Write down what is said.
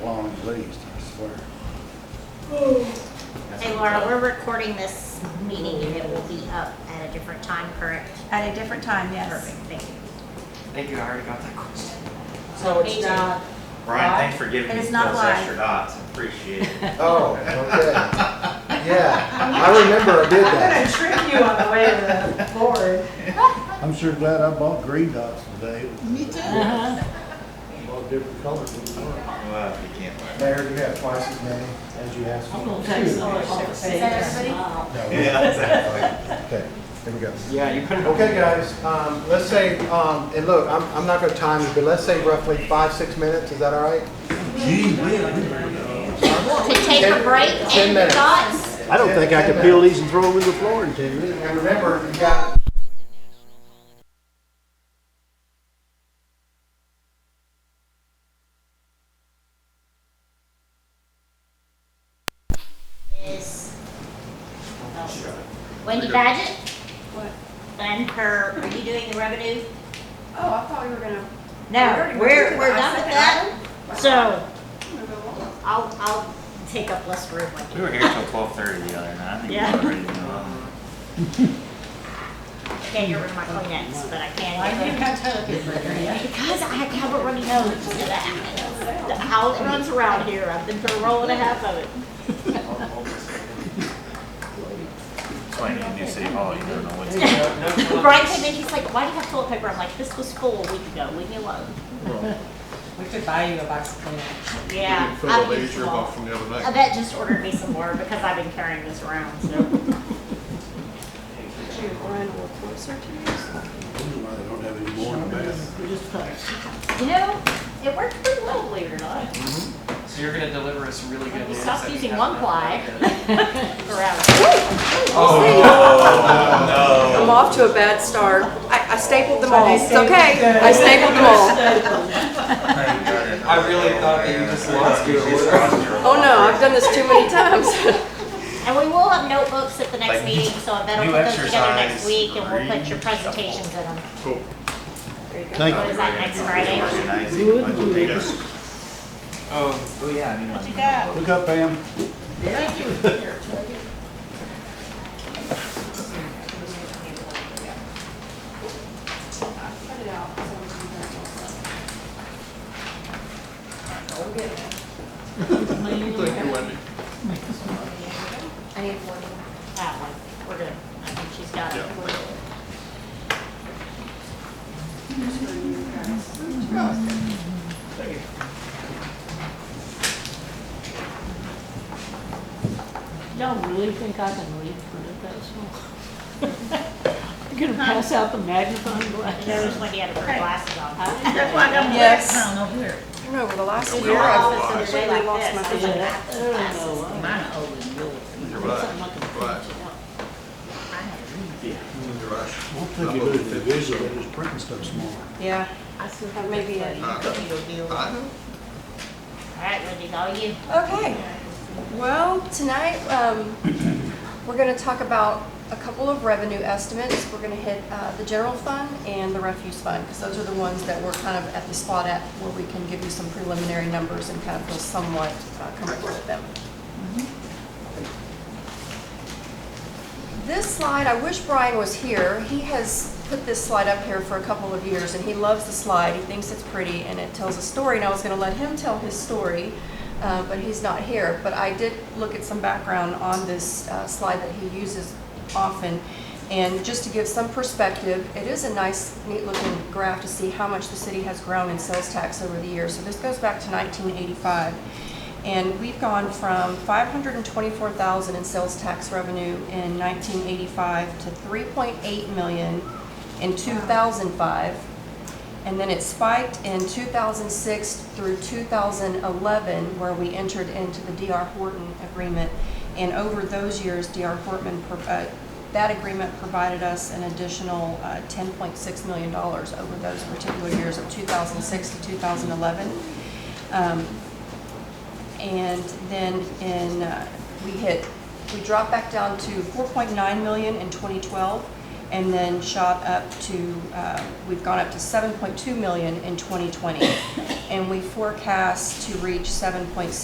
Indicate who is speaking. Speaker 1: at least, I swear.
Speaker 2: Hey Laura, we're recording this meeting and it will be up at a different time, correct?
Speaker 3: At a different time, yes.
Speaker 2: Perfect, thank you.
Speaker 4: Thank you, I already got that question.
Speaker 5: So it's
Speaker 2: Agent.
Speaker 5: not.
Speaker 4: Brian, thanks for giving
Speaker 3: It
Speaker 4: me
Speaker 3: is
Speaker 4: those
Speaker 3: not live.
Speaker 4: extra dots, appreciate it.
Speaker 1: Oh, okay. Yeah, I remember I did
Speaker 5: I'm gonna
Speaker 1: that.
Speaker 5: trick you on the way to the board.
Speaker 6: I'm sure glad I bought green dots today.
Speaker 7: Me too.
Speaker 1: All different colors. wouldn't work.
Speaker 4: Well, you can't buy it.
Speaker 1: Mayor, you have twice as many as you asked
Speaker 7: I'm
Speaker 1: for.
Speaker 7: gonna take some of the savings.
Speaker 1: No.
Speaker 4: Yeah, exactly.
Speaker 1: Okay, here we go.
Speaker 4: Yeah, you put it.
Speaker 1: Okay, guys, um, let's say, um, and look, I'm, I'm not gonna time it, but let's say roughly five, six minutes, is that all right?
Speaker 2: To take a
Speaker 1: Ten-
Speaker 2: break
Speaker 1: ten
Speaker 2: and
Speaker 1: minutes.
Speaker 2: thoughts?
Speaker 6: I don't think I could peel these and throw them in the floor in ten minutes.
Speaker 1: And remember, you got
Speaker 2: Is Wendy Badgett? What? And her, are you doing the revenue?
Speaker 8: Oh, I thought we were gonna.
Speaker 2: No,
Speaker 8: already
Speaker 2: we're,
Speaker 8: did
Speaker 2: we're
Speaker 8: the
Speaker 2: done with that.
Speaker 8: second item.
Speaker 2: So
Speaker 8: I'm gonna go along.
Speaker 2: I'll, I'll take up less room like
Speaker 4: We were here till twelve thirty the other night, I think we
Speaker 2: Yeah.
Speaker 4: were ready to go on.
Speaker 2: I can't get rid of my Kleenex, but I
Speaker 5: I
Speaker 2: can get rid
Speaker 5: didn't have toilet paper yet.
Speaker 2: Because I have a runny nose. How it runs around here, I've been through a roll and a half of it.
Speaker 4: So I need a new city hall, you don't know what's.
Speaker 2: Brian came in, he's like, why do you have toilet paper? I'm like, this was full a week ago, leave me alone.
Speaker 5: We could buy you a box of Kleenex.
Speaker 2: Yeah. I've used them all. I bet just ordered me some more because I've been carrying this around, so.
Speaker 8: Did you run a report search to
Speaker 2: You know, it worked pretty well, believe it or not.
Speaker 4: So you're gonna deliver us really
Speaker 2: When you stop using one ply. Around.
Speaker 4: Oh,
Speaker 3: I'm off to a bad start. I I stapled them all. It's okay. I stapled them all.
Speaker 4: I really thought that you just lost your.
Speaker 3: Oh, no, I've done this too many times.
Speaker 2: And we will have notebooks at the next
Speaker 4: Like,
Speaker 2: meeting, so I better
Speaker 4: new
Speaker 2: put those together
Speaker 4: exercise,
Speaker 2: next week and we'll put your
Speaker 4: read,
Speaker 2: presentations in them.
Speaker 6: Thank
Speaker 2: What is that, next Friday?
Speaker 4: Oh, oh, yeah, I mean. What you
Speaker 6: you. Look up, Pam.
Speaker 8: Cut it out. so we can get it all done.
Speaker 2: I need one. That one, we're good. I think she's got it.
Speaker 7: Y'all really think I can read print it that small? I'm gonna pass out the magnifying glass.
Speaker 2: There's Wendy had to put her glasses on.
Speaker 3: Yes. I know, over the last year, I've completely lost my vision.
Speaker 7: I don't know.
Speaker 5: Mine are older than yours.
Speaker 7: Something like a-
Speaker 6: One thing you lose the visual is printing stuff smaller.
Speaker 3: Yeah, that may be it.
Speaker 2: All right, Wendy, it's all you.
Speaker 3: Okay, well, tonight, um, we're gonna talk about a couple of revenue estimates. We're gonna hit, uh, the general fund and the refuse fund, because those are the ones that we're kind of at the spot at where we can give you some preliminary numbers and kind of feel somewhat uh, comfortable with them. This slide, I wish Brian was here. He has put this slide up here for a couple of years, and he loves the slide. He thinks it's pretty, and it tells a story, and I was gonna let him tell his story, uh, but he's not here. But I did look at some background on this uh, slide that he uses often, and just to give some perspective, it is a nice, neat-looking graph to see how much the city has grown in sales tax over the years. So this goes back to 1985. And we've gone from 524,000 in sales tax revenue in 1985 to 3.8 million in 2005. And then it spiked in 2006 through 2011, where we entered into the DR Horton agreement. And over those years, DR Horton, pro- uh, that agreement provided us an additional uh, $10.6 million over those particular years of 2006 to 2011. Um, and then in, uh, we hit, we dropped back down to 4.9 million in 2012, and then shot up to, uh, we've gone up to 7.2 million in 2020. And we forecast to reach 7.6